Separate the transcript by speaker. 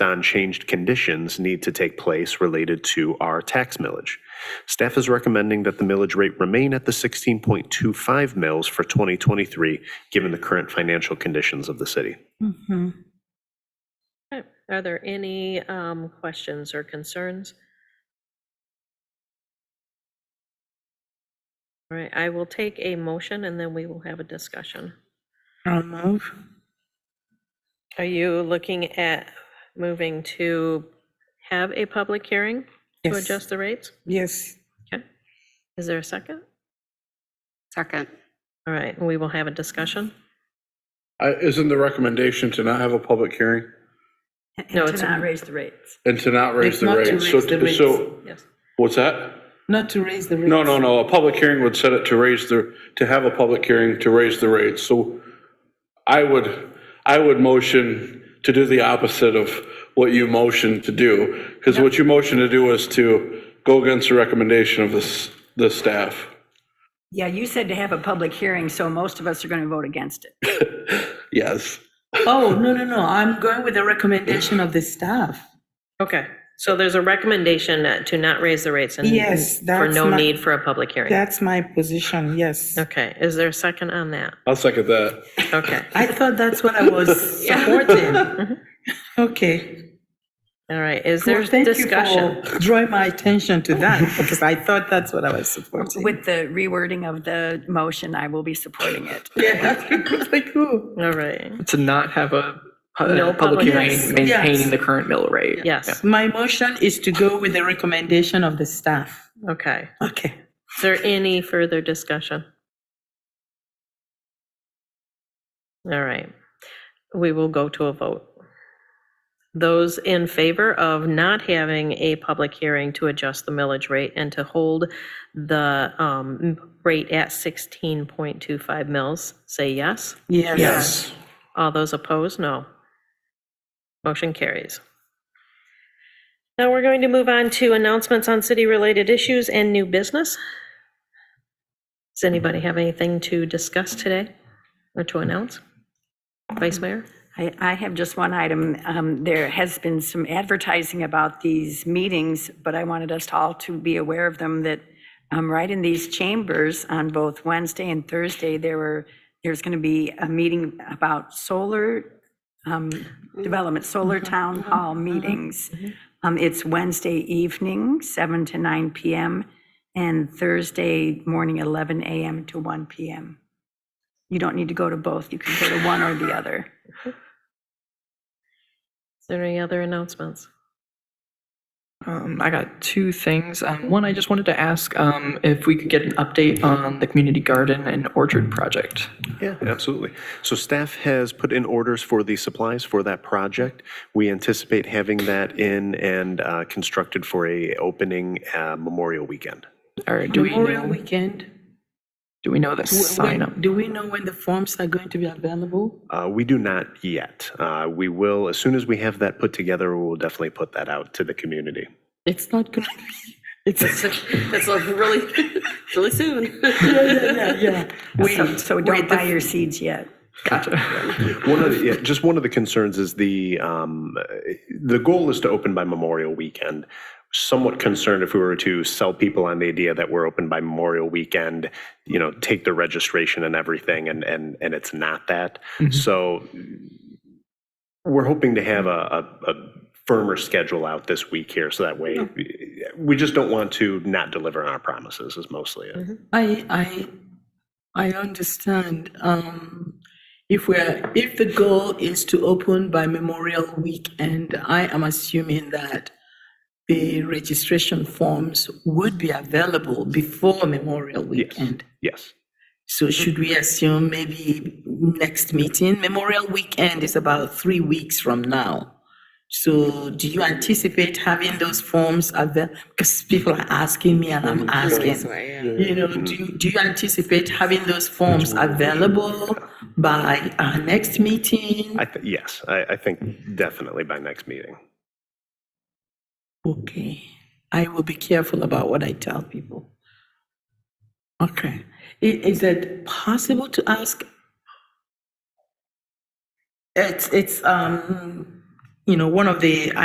Speaker 1: unchanged conditions need to take place related to our tax millage. Staff is recommending that the millage rate remain at the 16.25 mils for 2023, given the current financial conditions of the city.
Speaker 2: Mm-hmm.
Speaker 3: Mhm.
Speaker 4: Okay. Are there any um, questions or concerns? All right, I will take a motion and then we will have a discussion.
Speaker 3: I'll move.
Speaker 4: Are you looking at moving to have a public hearing to
Speaker 3: Yes.
Speaker 4: adjust the rates?
Speaker 3: Yes.
Speaker 4: Is there a second?
Speaker 5: Second.
Speaker 4: All right, we will have a discussion.
Speaker 6: I- Isn't the recommendation to not have a public hearing
Speaker 4: No,
Speaker 2: And to
Speaker 4: it's-
Speaker 2: not raise the rates.
Speaker 6: and to not raise
Speaker 3: It's
Speaker 6: the
Speaker 3: not to
Speaker 6: rates? So,
Speaker 3: raise the
Speaker 6: so,
Speaker 4: Yes.
Speaker 6: what's that?
Speaker 3: Not to raise the rates.
Speaker 6: No, no, no, a public hearing would set it to raise the, to have a public hearing to raise the rates. So I would, I would motion to do the opposite of what you motioned to do. Because what you motioned to do was to go against the recommendation of this, the staff.
Speaker 2: Yeah, you said to have a public hearing, so most of us are going to vote against it.
Speaker 6: Yes.
Speaker 3: Oh, no, no, no. I'm going with the recommendation of the staff.
Speaker 4: Okay, so there's a recommendation to not raise the rates and
Speaker 3: Yes,
Speaker 4: for
Speaker 3: that's
Speaker 4: no
Speaker 3: my-
Speaker 4: need for a public hearing.
Speaker 3: That's my position, yes.
Speaker 4: Okay, is there a second on that?
Speaker 6: I'll second that.
Speaker 4: Okay,
Speaker 3: I thought that's what I was supporting. Okay.
Speaker 4: all right, is there
Speaker 3: Well, thank you
Speaker 4: discussion?
Speaker 3: for Drawing my attention to that because I thought that's what I was supporting.
Speaker 2: With the rewording of the motion, I will be supporting it.
Speaker 3: Yeah, that's pretty cool.
Speaker 4: All right,
Speaker 7: to not have a pu-
Speaker 4: No Uh, public
Speaker 7: public
Speaker 4: hearing.
Speaker 7: hearing,
Speaker 3: Yes.
Speaker 7: maintaining the current mill rate.
Speaker 4: yes,
Speaker 3: My motion is to go with the recommendation of the staff.
Speaker 4: okay.
Speaker 3: Okay.
Speaker 4: Is there any further discussion? All right, we will go to a vote. Those in favor of not having a public hearing to adjust the millage rate and to hold the um, rate at 16.25 mills, say yes.
Speaker 3: Yes.
Speaker 4: All those opposed, no. Motion carries. Now we're going to move on to announcements on city-related issues and new business. Does anybody have anything to discuss today or to announce? Vice Mayor?
Speaker 2: I, I have just one item. Um, There has been some advertising about these meetings, but I wanted us all to be aware of them, that um, right in these chambers on both Wednesday and Thursday, there were, there's going to be a meeting about solar um, development, solar town hall meetings. Um, It's Wednesday evening, 7 to 9 PM, and Thursday morning, 11 AM to 1 PM. You don't need to go to both. You can go to one or the other.
Speaker 4: Is there any other announcements?
Speaker 7: Um, I got two things. Um, one, I just wanted to ask um, if we could get an update on the community garden and orchard project.
Speaker 1: Yeah, absolutely. So staff has put in orders for the supplies for that project. We anticipate having that in and uh, constructed for a opening uh, Memorial Weekend.
Speaker 7: Or do we
Speaker 3: Memorial
Speaker 7: know,
Speaker 3: weekend.
Speaker 7: do we know the
Speaker 3: Wh-
Speaker 7: sign
Speaker 3: when-
Speaker 7: up?
Speaker 3: Do we know when the forms are going to be available?
Speaker 1: Uh, We do not yet. Uh, We will, as soon as we have that put together, we'll definitely put that out to the community.
Speaker 3: It's not gonna be, it's, yeah,
Speaker 8: That's like really, really soon.
Speaker 3: yeah, yeah, yeah.
Speaker 2: So- So don't buy your seeds yet.
Speaker 7: Gotcha.
Speaker 1: One of the, yeah, just one of the concerns is the, um, uh, the goal is to open by Memorial Weekend. Somewhat concerned if we were to sell people on the idea that we're open by Memorial Weekend, you know, take the registration and everything, and, and, and it's not that.
Speaker 7: Mhm.
Speaker 1: So we're hoping to have a, a, a firmer schedule out this week here, so that way, we just don't want to not deliver on our promises is mostly it.
Speaker 3: I, I, I understand. Um, if we're, if the goal is to open by Memorial Weekend, I am assuming that the registration forms would be available before Memorial Weekend.
Speaker 1: Yes.
Speaker 3: So should we assume maybe next meeting? Memorial Weekend is about three weeks from now. So do you anticipate having those forms available? Because people are asking me and I'm asking. You know, do you, do you anticipate having those forms available by our next meeting?
Speaker 1: I, th- yes, I, I think definitely by next meeting.
Speaker 3: Okay, I will be careful about what I tell people. Okay, I- is it possible to ask? It's, it's, um, you know, one of the